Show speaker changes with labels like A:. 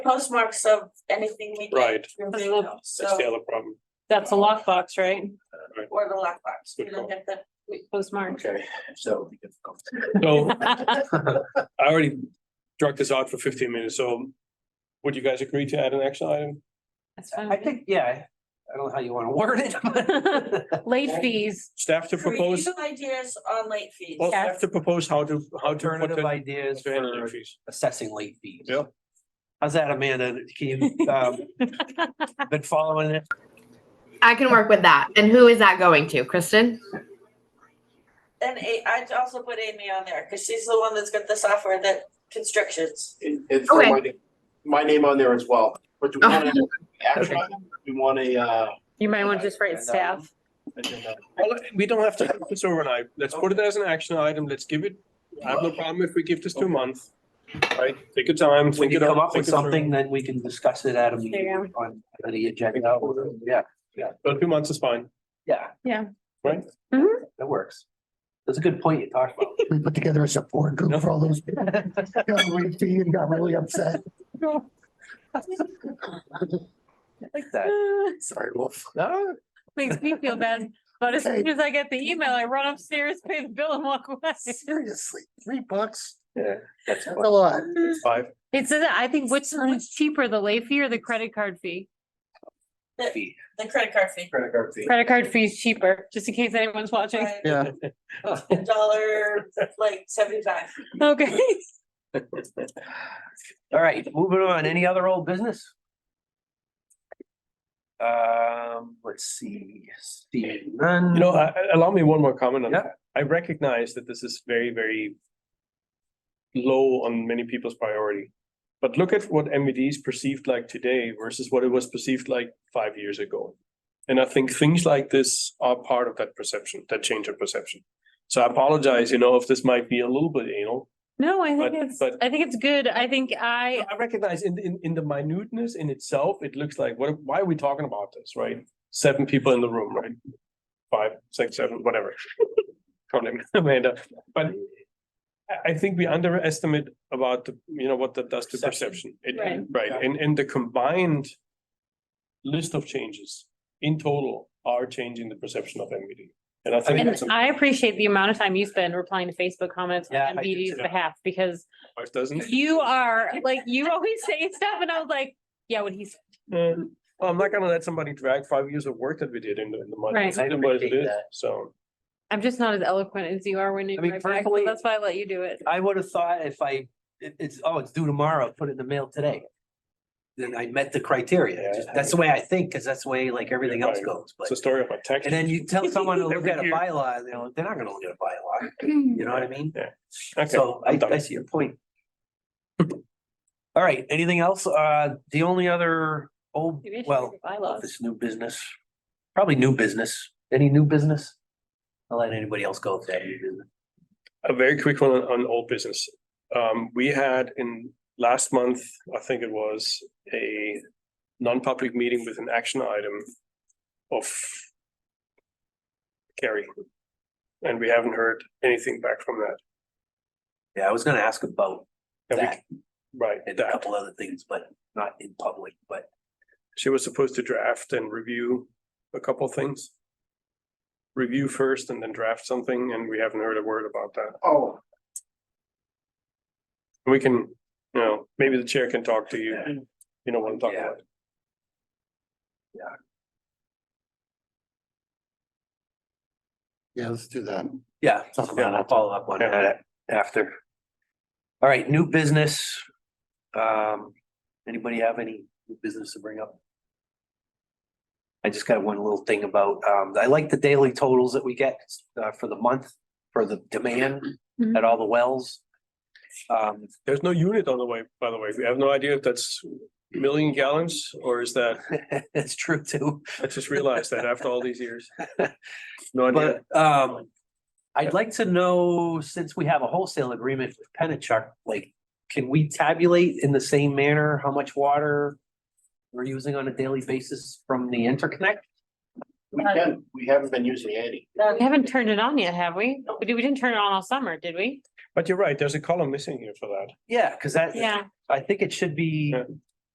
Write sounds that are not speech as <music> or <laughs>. A: postmarks of anything we.
B: Right.
A: review,
B: That's the
A: So,
B: other problem.
C: That's a lockbox, right?
A: or the lockbox, we
B: Good
A: don't
B: call.
A: get that.
C: <laughs> Postmark.
D: Okay, so.
B: So <laughs> I already drug this out for fifteen minutes, so would you guys agree to add an action item?
C: That's fine.
D: I think, yeah, I don't know how you want to word
C: <laughs>
D: it. <laughs>
C: Late fees,
B: Staff to propose,
A: Review Ideas on late fees.
B: well, staff to propose how to, how to. put
D: Alternative
B: the-
D: ideas
B: to handle
D: for
B: the fees.
D: assessing late fees.
B: Yeah.
D: How's that, Amanda? Can you, um,
C: <laughs>
D: been following it?
E: I can work with that. And who is that going to? Kristen?
A: And A, I'd also put Amy on there, cause she's the one that's got the software that constructions.
F: And, and throw
E: Okay.
F: my, name- my name on there as well, but do we want an action
D: Okay.
F: item? Do we want a, uh?
C: <laughs> you might want to just write staff.
F: agenda?
B: Well, We don't have to have this overnight. Let's put it as an action item. Let's give it, I have no problem if we give this two months. Right, take your time,
D: When
B: think
D: you
B: it out.
D: come up with
B: think it through.
D: something, then we can discuss it at a
C: There
D: meeting on the agenda. Yeah,
B: But two months is fine.
D: yeah.
C: Yeah.
B: Right?
C: Mhm.
D: That works. That's a good point you talked about.
G: we put together a support group for all those
F: <laughs>
G: people. Got really fee and got really upset.
D: I like that.
C: Ah,
G: Sorry, Wolf.
D: No,
C: <laughs> Makes me feel bad, but as soon as I get the email, I run upstairs, pay the bill and walk away.
G: Seriously, three bucks?
D: yeah, that's
G: That's a lot.
B: Five.
C: It says, I think which one's cheaper, the late fee or the credit card fee?
D: fee.
A: The credit card fee,
F: Credit card fee.
C: Credit card fee is cheaper, just in case anyone's watching.
A: right?
G: Yeah.
A: A dollar, like seventy-five.
C: Okay. <laughs>
D: All right, moving on. Any other old business? Um, let's see, Steve, none.
B: You know, I- I- allow me one more comment on
D: Um, Yeah.
B: that. I recognize that this is very, very low on many people's priority. But look at what MVD is perceived like today versus what it was perceived like five years ago. And I think things like this are part of that perception, that change of perception. So I apologize, you know, if this might be a little bit anal.
C: No, I
B: But-
C: think it's,
B: but-
C: I think it's good. I think I,
B: I recognize in, in, in the minuteness in itself, it looks like, what, why are we talking about this, right? Seven people in the room, right? Five, six, seven, whatever. <laughs> Call name, Amanda, but I, I think we underestimate about the, you know, what that does to perception.
D: Perception.
B: It-
C: Right.
B: Right, and, and the combined list of changes in total are changing the perception of MVD. And I think
C: and
B: that's, a-
C: I appreciate the amount of time you spend replying to Facebook comments
D: Yeah, I
C: on
D: do
C: MBD's
B: too.
C: behalf, because
B: it doesn't.
C: You <laughs> are like, you always say stuff and I was like, yeah, when he's,
B: Yeah. Well, I'm not gonna let somebody drag five years of work that we did into, in the month.
C: Right.
B: It's what it
D: appreciate
B: is,
D: that.
B: so.
C: I'm just not as eloquent as you are when you
D: I mean,
C: write back, so
D: personally-
C: that's why I let you do it.
D: I would have thought if I, it, it's, oh, it's due tomorrow, put it in the mail today. Then I met the criteria. Just- That's the way I think, because that's the way like everything else goes, but.
B: It's a story of my text.
D: <laughs> And then you
B: <laughs>
D: tell someone to look at a
B: Every year.
D: bylaw, you know, they're not gonna look at a bylaw,
B: <clears throat>
D: you know what I mean?
B: Okay,
D: So I,
B: I'm done.
D: I see your point. All right, anything else? Uh, the only other, old
C: Maybe I should
D: well,
C: read the bylaws.
D: this new business, probably new business. Any new business? I'll let anybody else go if they have new business.
B: A very quick one on, on old business. Um, we had in last month, I think it was, a non-public meeting with an action item of Carrie. And we haven't heard anything back from that.
D: Yeah, I was gonna ask about
B: And we-
D: that
B: Right,
D: and a
B: that.
D: couple other things, but not in public, but
B: She was supposed to draft and review a couple things. Review first and then draft something, and we haven't heard a word about that.
F: Oh,
B: We can, you know, maybe the chair can talk to you. You know what I'm talking
D: Yeah.
B: about.
G: Yeah, let's do that.
D: yeah,
G: Talk
D: yeah,
G: about
D: I'll
G: that.
D: follow up on
B: Yeah.
D: that after. All right, new business. Um, anybody have any new business to bring up? I just got one little thing about, um, I like the daily totals that we get uh for the month for the demand
C: Mhm.
D: at all the wells. Um,
B: There's no unit on the way, by the way. We have no idea if that's million gallons or is that,
D: <laughs> it's true too.
B: I just realized that after all these years. <laughs> No idea.
D: But um, I'd like to know, since we have a wholesale agreement with Penachuk, like, can we tabulate in the same manner how much water? We're using on a daily basis from the interconnect?
F: we can, we haven't been using any.
C: We haven't turned it on yet, have we? We did- we didn't turn it on all summer, did we?
B: But you're right, there's a column missing here for that.
D: Yeah, cause that.
C: Yeah,
D: I think it should be
B: Yeah.